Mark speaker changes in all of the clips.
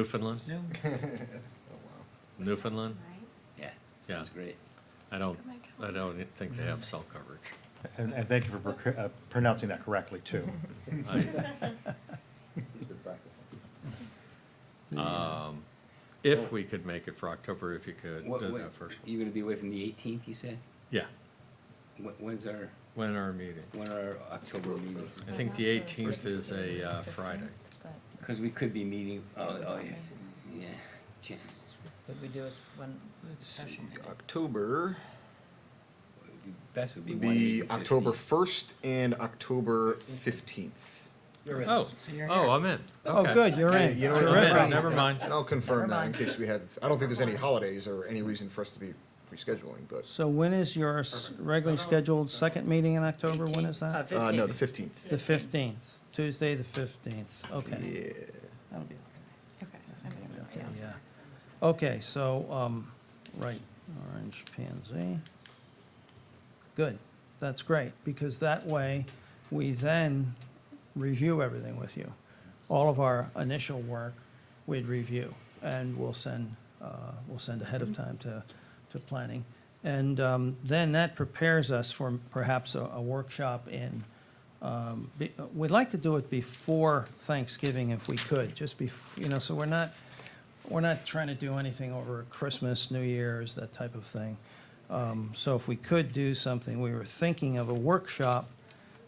Speaker 1: Newfoundland?
Speaker 2: Oh, wow.
Speaker 1: Newfoundland?
Speaker 3: Yeah, sounds great.
Speaker 1: I don't,
Speaker 4: Come back
Speaker 1: I don't think they have cell coverage.
Speaker 5: And, and thank you for proc- uh, pronouncing that correctly, too.
Speaker 1: I-
Speaker 2: He's been practicing.
Speaker 1: um, If we could make it for October, if you could,
Speaker 3: What,
Speaker 1: do
Speaker 3: what-
Speaker 1: that first.
Speaker 3: you're gonna be away from the eighteenth, you said?
Speaker 1: Yeah,
Speaker 3: Wh- When's our,
Speaker 1: when are our meeting?
Speaker 3: when are our October meetings?
Speaker 1: I think the eighteenth is a uh, Friday.
Speaker 3: Cause we could be meeting, oh, oh, yeah, yeah. Jan-
Speaker 6: Would we do is one
Speaker 2: Let's see,
Speaker 6: special?
Speaker 2: October
Speaker 3: would be- Best would be
Speaker 2: would
Speaker 3: one week
Speaker 2: be
Speaker 3: and
Speaker 2: October
Speaker 3: 15.
Speaker 2: first and October fifteenth.
Speaker 1: Oh, oh, I'm in.
Speaker 7: Oh,
Speaker 1: Okay.
Speaker 7: good, you're
Speaker 2: Okay,
Speaker 7: in.
Speaker 2: you know what,
Speaker 7: You're
Speaker 1: I'm
Speaker 7: in.
Speaker 1: in, never mind.
Speaker 2: And I'll confirm
Speaker 6: Never
Speaker 2: that in
Speaker 6: mind.
Speaker 2: case we had, I don't think there's any holidays or any reason for us to be rescheduling, but,
Speaker 7: So when is your s- regularly scheduled second meeting in October? When is that?
Speaker 6: Uh,
Speaker 2: uh, no, the
Speaker 6: 15th.
Speaker 2: fifteenth.
Speaker 7: The fifteenth, Tuesday, the fifteenth, okay.
Speaker 2: Yeah,
Speaker 7: That'll be
Speaker 4: Okay. I'm gonna-
Speaker 7: Okay, yeah. Okay, so, um, right, orange pansy. Good, that's great, because that way, we then review everything with you. All of our initial work, we'd review, and we'll send, uh, we'll send ahead of time to, to planning. And, um, then that prepares us for perhaps a, a workshop in, um, be- uh, we'd like to do it before Thanksgiving if we could, just bef, you know, so we're not, we're not trying to do anything over Christmas, New Year's, that type of thing. Um, So if we could do something, we were thinking of a workshop.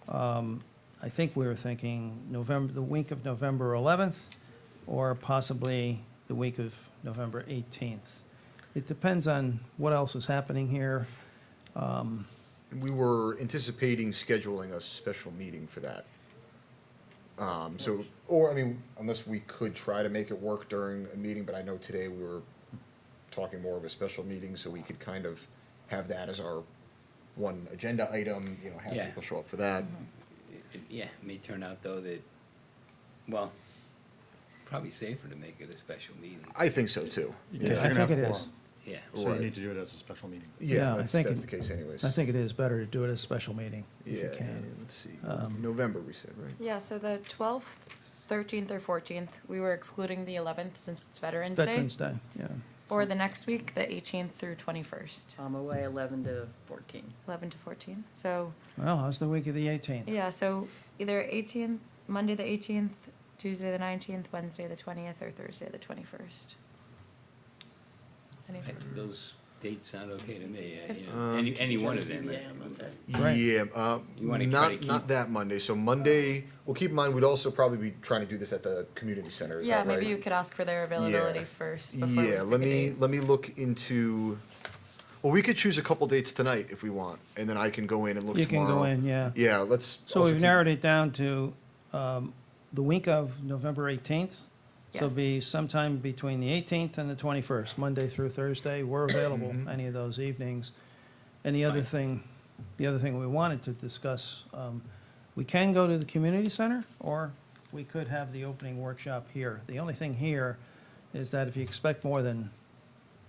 Speaker 7: um, I think we were thinking November, the week of November 11th, or possibly the week of November 18th. It depends on what else is happening here.
Speaker 2: we were anticipating scheduling a special meeting for that. Um, so, or, I mean, unless we could try to make it work during a meeting, but I know today we were talking more of a special meeting, so we could kind of have that as our one agenda item, you know, have
Speaker 3: Yeah.
Speaker 2: people show up for that.
Speaker 7: Mm-hmm.
Speaker 3: It- it- Yeah, may turn out though that, well, probably safer to make it a special meeting,
Speaker 2: I think so too.
Speaker 5: Because you're
Speaker 7: I
Speaker 5: gonna have
Speaker 7: think it
Speaker 5: quorum.
Speaker 7: is.
Speaker 3: yeah.
Speaker 5: So
Speaker 2: Right.
Speaker 5: you need to do it as a special meeting.
Speaker 2: Yeah,
Speaker 7: I
Speaker 2: that's,
Speaker 7: think
Speaker 2: that's
Speaker 7: it-
Speaker 2: the case anyways.
Speaker 7: I think it is better to do it as a special meeting, if
Speaker 2: Yeah,
Speaker 7: you can. Um,
Speaker 2: and let's see, November we said, right?
Speaker 4: Yeah, so the twelfth, thirteenth, or fourteenth, we were excluding the eleventh since it's Veterans Day.
Speaker 7: Veterans Day, yeah.
Speaker 4: Or the next week, the eighteenth through twenty-first,
Speaker 2: Um,
Speaker 6: I'm away 11 to 14.
Speaker 4: eleven to fourteen. So,
Speaker 7: Well, how's the week of the 18th?
Speaker 4: yeah, so either eighteenth, Monday the eighteenth, Tuesday the nineteenth, Wednesday the twentieth, or Thursday the twenty-first. Any
Speaker 3: I- Those dates sound okay to me, uh, you know,
Speaker 2: Um,
Speaker 3: any, any one of them.
Speaker 7: Right.
Speaker 2: Yeah, uh,
Speaker 3: You wanna try to
Speaker 2: not, not
Speaker 3: keep-
Speaker 2: that Monday, so Monday, well, keep in mind, we'd also probably be trying to do this at the community center, is
Speaker 4: Yeah,
Speaker 2: that right?
Speaker 4: maybe you could ask for their availability first before we
Speaker 2: Yeah, let
Speaker 4: pick a
Speaker 2: me,
Speaker 4: date.
Speaker 2: let me look into, well, we could choose a couple dates tonight if we want, and then I can go in and look
Speaker 7: You can
Speaker 2: tomorrow.
Speaker 7: go in, yeah.
Speaker 2: Yeah, let's.
Speaker 7: So
Speaker 2: also
Speaker 7: we've
Speaker 2: keep-
Speaker 7: narrowed it down to um, the week of November 18th. So
Speaker 4: Yes.
Speaker 7: it'll be sometime between the 18th and the 21st, Monday through Thursday. We're
Speaker 2: Mm-hmm.
Speaker 7: available any of those evenings. And the other thing, the other thing we wanted to discuss, um, we can go to the community center, or we could have the opening workshop here. The only thing here is that if you expect more than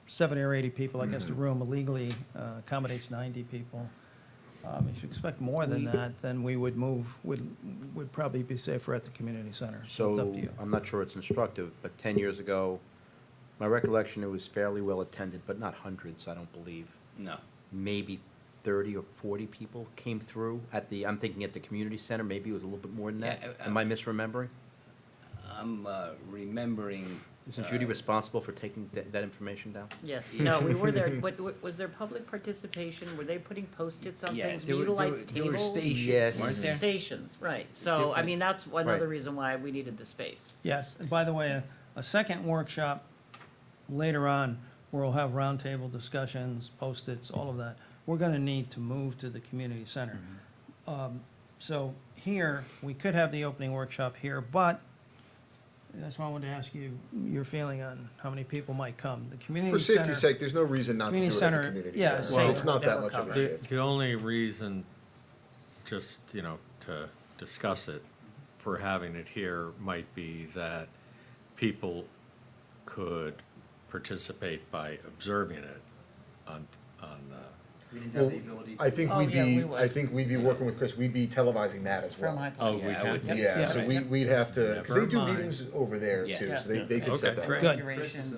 Speaker 7: 70 or 80 people, I guess the room illegally uh, accommodates 90 people. Um, If you expect more than that, then we would move, would, would probably be safer at the community center. It's up
Speaker 8: So,
Speaker 7: to you.
Speaker 8: I'm not sure it's instructive, but 10 years ago, my recollection, it was fairly well-attended, but not hundreds, I don't believe.
Speaker 3: No,
Speaker 8: Maybe 30 or 40 people came through at the, I'm thinking at the community center, maybe it was a little bit more than that.
Speaker 3: Yeah, I- I-
Speaker 8: Am I misremembering?
Speaker 3: I'm, uh, remembering.
Speaker 8: Isn't Judy
Speaker 3: uh,
Speaker 8: responsible for taking that, that information down?
Speaker 6: Yes, no, we were there, what, what- was there public participation? Were they putting post-its on
Speaker 3: Yeah,
Speaker 6: things? We
Speaker 3: there were- there were-
Speaker 6: utilized
Speaker 3: There were
Speaker 6: tables?
Speaker 3: stations,
Speaker 8: Yes.
Speaker 3: weren't there?
Speaker 6: Stations, right. So, I
Speaker 3: Different-
Speaker 6: mean, that's one other
Speaker 8: Right.
Speaker 6: reason why we needed the space.
Speaker 7: Yes, and by the way, a, a second workshop later on, where we'll have roundtable discussions, post-its, all of that, we're gonna need to move to the community center.
Speaker 2: Mm-hmm.
Speaker 7: Um, So here, we could have the opening workshop here, but that's why I wanted to ask you your feeling on how many people might come. The community
Speaker 2: For
Speaker 7: center.
Speaker 2: safety's sake, there's no reason not to do it
Speaker 7: Community
Speaker 2: at
Speaker 7: center,
Speaker 2: the community
Speaker 7: yeah,
Speaker 2: center.
Speaker 7: safe.
Speaker 2: It's not that
Speaker 6: Well,
Speaker 2: much of a
Speaker 1: The,
Speaker 2: shift.
Speaker 1: the only reason, just, you know, to discuss it, for having it here might be that people could participate by observing it on, on the
Speaker 8: We didn't
Speaker 2: Well, I think
Speaker 6: Oh,
Speaker 2: we'd
Speaker 6: yeah,
Speaker 2: be,
Speaker 6: we would.
Speaker 2: I think we'd be working with Chris, we'd be televising that as well.
Speaker 6: From my place.
Speaker 1: Oh, we
Speaker 3: Yeah, I
Speaker 1: can?
Speaker 3: would
Speaker 1: not
Speaker 3: think
Speaker 2: Yeah,
Speaker 7: Yeah.
Speaker 2: so we, we'd have to, because they do
Speaker 6: Vermont.
Speaker 2: meetings over there
Speaker 3: Yeah.
Speaker 2: too, so they, they could
Speaker 1: Okay,
Speaker 2: set that up.
Speaker 1: great.
Speaker 7: Good.
Speaker 6: Configuration.